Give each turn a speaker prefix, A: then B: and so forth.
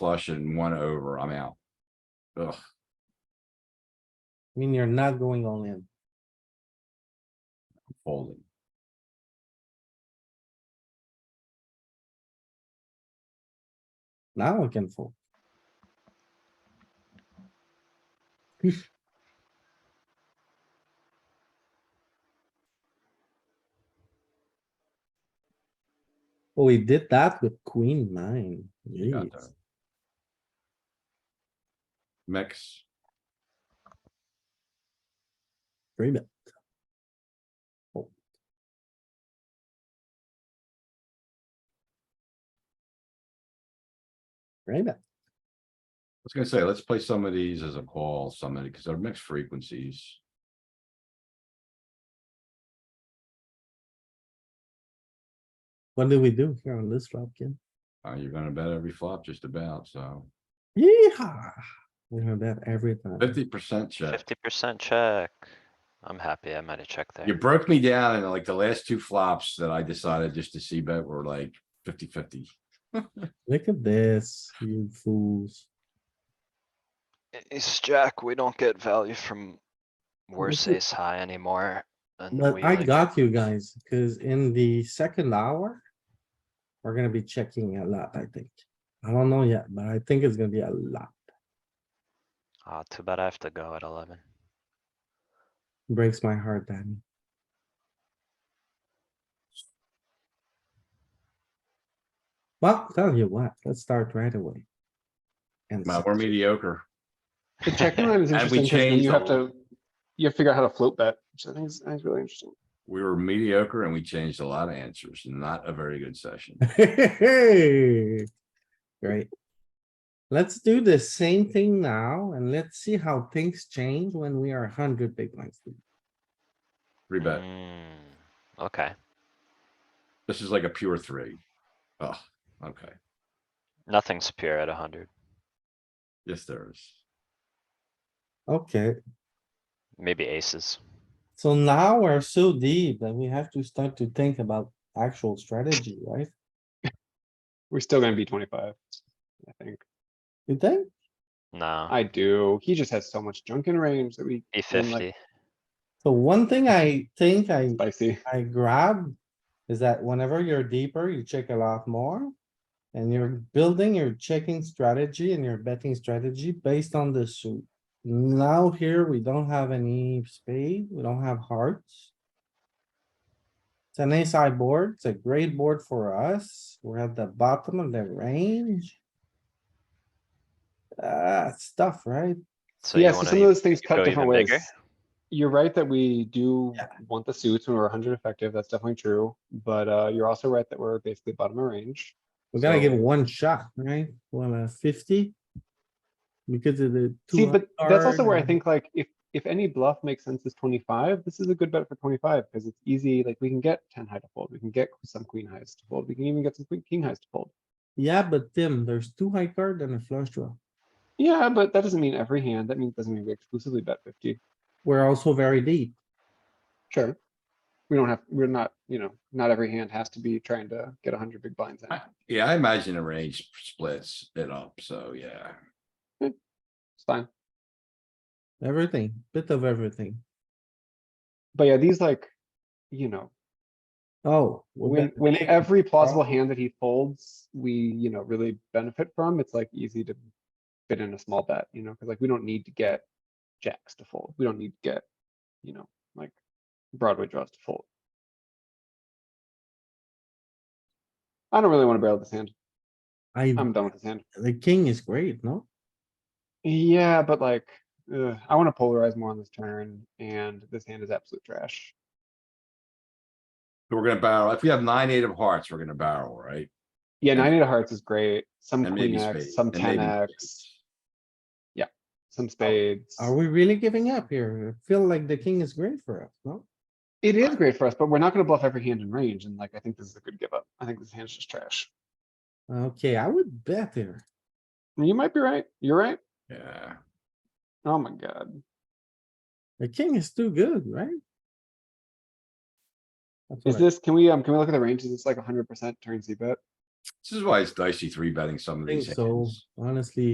A: flush and one over, I'm out. Ugh,
B: I mean, you're not going all in.
A: folding.
B: Now we can fold. Well, we did that with queen nine.
A: You got
B: Jeez.
A: that. Mix,
B: Three bet. Oh. Three bet.
A: I was gonna say, let's play some of these as a call, some of because they're mixed frequencies.
B: What do we do here on this flop, kid?
A: Uh, you're gonna bet every flop just about, so
B: Yeah, we're gonna bet every time.
A: fifty percent check.
C: Fifty percent check. I'm happy. I might have checked
A: You
C: there.
A: broke me down and like the last two flops that I decided just to see bet were like 50-50.
B: Look at this, you fools.
C: It's jack. We don't get value from worse
B: is-
C: ace high anymore. and
B: But
C: we,
B: I
C: like-
B: got you guys, cuz in the second hour. We're gonna be checking a lot, I think. I don't know yet, but I think it's gonna be a lot.
C: Ah, too bad I have to go at eleven.
B: Breaks my heart, Danny. Well, tell you what, let's start right away. And
A: Man,
B: s-
A: we're mediocre.
D: The checking line is
A: And we
D: interesting because
A: changed
D: you
A: a
D: have to, you have to figure out how to float bet, which I think is, I think is really interesting.
A: We were mediocre and we changed a lot of answers. Not a very good session.
B: Great. Let's do the same thing now and let's see how things change when we are hundred big blinds. deep.
A: Three bet.
C: Mm, Okay,
A: This is like a pure three. Oh, okay.
C: nothing's pure at hundred.
A: Yes, there is.
B: Okay,
C: Maybe aces.
B: so now we're so deep that we have to start to think about actual strategy, right?
D: We're still gonna be twenty-five, I think.
B: You think?
C: No,
D: I do. He just has so much junk in range that we
C: B
D: then, like,
C: E fifty.
B: So one thing I think I,
D: spicy.
B: I grab is that whenever you're deeper, you check a lot more. And you're building your checking strategy and your betting strategy based on the suit. Now here, we don't have any spade, we don't have hearts. It's an ace high board, it's a great board for us, we're at the bottom of the range. Uh, it's tough, right?
C: So you
D: Yeah, so
C: wanna
D: some of
C: e-
D: those things
C: go
D: cut different
C: even
D: ways.
C: bigger?
D: You're right that we do
B: Yeah.
D: want the suits when we're hundred effective. That's definitely true. But, uh, you're also right that we're basically bottom of range.
B: We gotta
D: So-
B: give one shot, right? One uh, fifty. Because of the.
D: See, but that's also where I
B: 200.
D: think like if, if any bluff makes sense is twenty-five, this is a good bet for twenty-five because it's easy, like we can get ten high to fold, we can get some queen highs to fold, we can even get some queen king highs to fold.
B: Yeah, but Tim, there's two high card and a flush draw.
D: Yeah, but that doesn't mean every hand. That means doesn't mean we exclusively bet fifty.
B: We're also very deep.
D: Sure. We don't have, we're not, you know, not every hand has to be trying to get hundred big blinds in.
A: I- Yeah, I imagine the range splits it up, so yeah.
D: It's fine.
B: Everything, bit of everything.
D: But yeah, these like, you know,
B: Oh. we
D: when,
B: bet
D: when
B: big.
D: every plausible hand that he folds, we, you know, really benefit from, it's like easy to fit in a small bet, you know, cuz like we don't need to get jacks to fold. We don't need to get, you know, like Broadway draws to fold. I don't really want to barrel this hand.
A: Mm-hmm.
B: I,
D: I'm done with this hand.
B: the king is great, no?
D: Yeah, but like, ugh, I wanna polarize more on this turn, and this hand is absolute trash.
A: We're gonna barrel. If we have nine, eight of hearts, we're gonna barrel, right?
D: Yeah,
A: And-
D: nine eight of hearts is great, some
A: And maybe
D: queen
A: spades.
D: X, some
A: and
D: ten
A: maybe
D: X,
A: spades.
D: some spades.
B: Are we really giving up here? I feel like the king is great for us, no?
D: It is great for us, but we're not gonna bluff every hand in range, and like, I think this is a good give up. I think this hand's just trash.
B: Okay, I would bet here.
D: You might be right, you're right.
A: Yeah,
D: Oh my god,
B: The king is too good, right? That's what
D: is
B: I-
D: this, can we, um, can we look at the range? Is this like hundred percent turn C bet?
A: This is why it's dicey three betting some of
B: think
A: these
B: so,
A: hands.
B: honestly.